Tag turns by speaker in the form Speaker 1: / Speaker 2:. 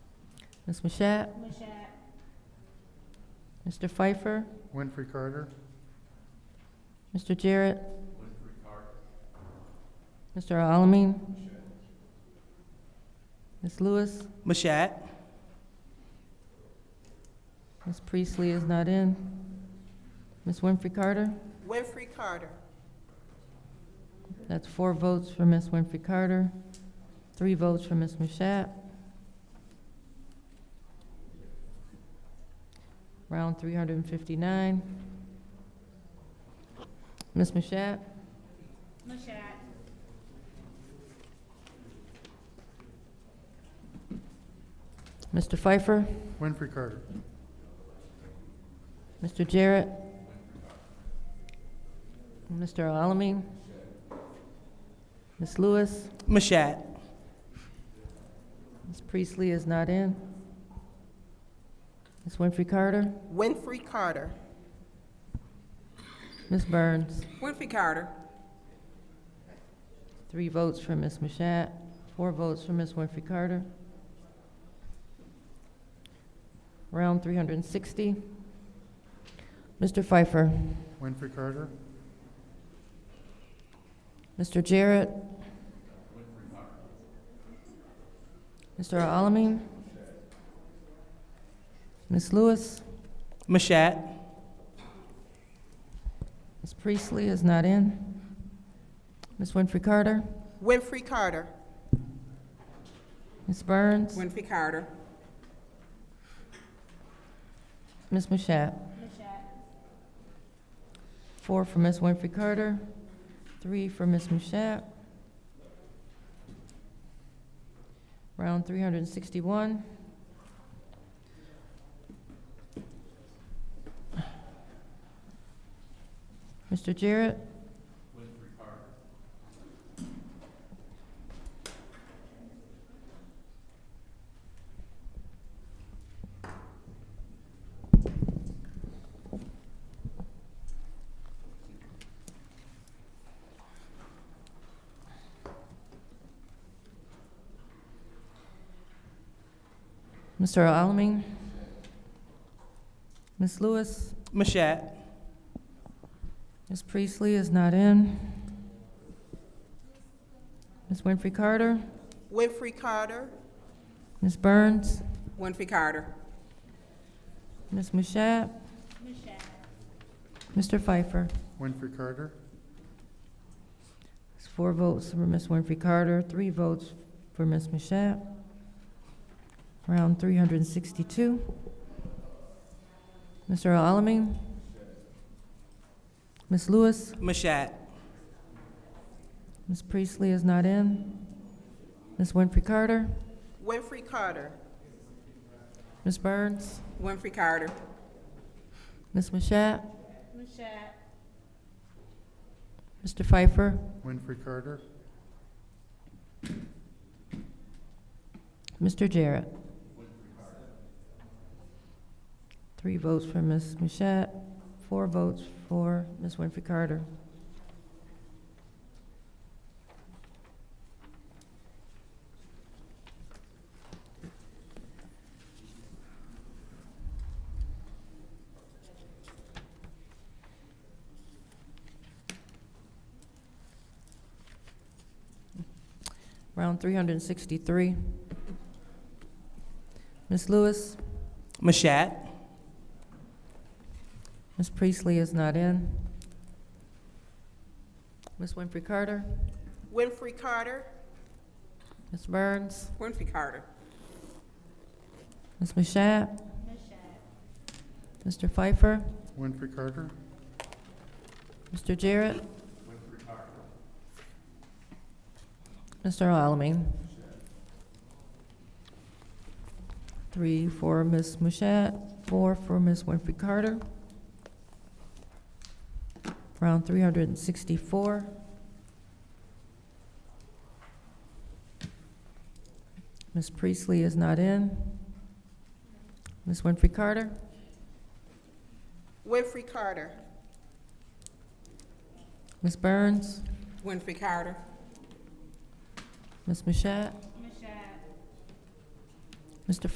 Speaker 1: Ms. Mashat? Mr. Pfeiffer?
Speaker 2: Winfrey Carter,
Speaker 1: Mr. Jarrett? Mr. Alamin? Ms. Lewis?
Speaker 3: Mashat.
Speaker 1: Ms. Priestley is not in. Ms. Winfrey Carter?
Speaker 4: Winfrey Carter.
Speaker 1: That's four votes for Ms. Winfrey Carter, three votes for Ms. Mashat. Round three hundred and fifty-nine. Ms. Mashat? Mashat. Mr. Pfeiffer?
Speaker 2: Winfrey Carter,
Speaker 1: Mr. Jarrett? Mr. Alamin? Ms. Lewis?
Speaker 3: Mashat.
Speaker 1: Ms. Priestley is not in. Ms. Winfrey Carter?
Speaker 4: Winfrey Carter.
Speaker 1: Ms. Burns?
Speaker 4: Winfrey Carter.
Speaker 1: Three votes for Ms. Mashat, four votes for Ms. Winfrey Carter. Round 360. Mr. Pfeiffer?
Speaker 2: Winfrey Carter,
Speaker 1: Mr. Jarrett? Mr. Alamin? Ms. Lewis?
Speaker 3: Mashat.
Speaker 1: Ms. Priestley is not in. Ms. Winfrey Carter?
Speaker 4: Winfrey Carter.
Speaker 1: Ms. Burns?
Speaker 4: Winfrey Carter.
Speaker 1: Ms. Mashat? Four for Ms. Winfrey Carter, three for Ms. Mashat. Round three hundred and sixty-one. Mr. Jarrett? Mr. Alamin? Ms. Lewis?
Speaker 3: Mashat.
Speaker 1: Ms. Priestley is not in. Ms. Winfrey Carter?
Speaker 4: Winfrey Carter.
Speaker 1: Ms. Burns?
Speaker 4: Winfrey Carter.
Speaker 1: Ms. Mashat? Mr. Pfeiffer?
Speaker 2: Winfrey Carter,
Speaker 1: It's four votes for Ms. Winfrey Carter, three votes for Ms. Mashat. Round three hundred and sixty-two. Mr. Alamin? Ms. Lewis?
Speaker 3: Mashat.
Speaker 1: Ms. Priestley is not in. Ms. Winfrey Carter?
Speaker 4: Winfrey Carter.
Speaker 1: Ms. Burns?
Speaker 4: Winfrey Carter.
Speaker 1: Ms. Mashat? Mr. Pfeiffer?
Speaker 2: Winfrey Carter,
Speaker 1: Mr. Jarrett? Three votes for Ms. Mashat, four votes for Ms. Winfrey Carter. Round three hundred and sixty-three. Ms. Lewis?
Speaker 3: Mashat.
Speaker 1: Ms. Priestley is not in. Ms. Winfrey Carter?
Speaker 4: Winfrey Carter.
Speaker 1: Ms. Burns?
Speaker 4: Winfrey Carter.
Speaker 1: Ms. Mashat? Mr. Pfeiffer?
Speaker 2: Winfrey Carter,
Speaker 1: Mr. Jarrett? Mr. Alamin? Three for Ms. Mashat, four for Ms. Winfrey Carter. Round three hundred and sixty-four. Ms. Priestley is not in. Ms. Winfrey Carter?
Speaker 4: Winfrey Carter.
Speaker 1: Ms. Burns?
Speaker 4: Winfrey Carter.
Speaker 1: Ms. Mashat? Mr.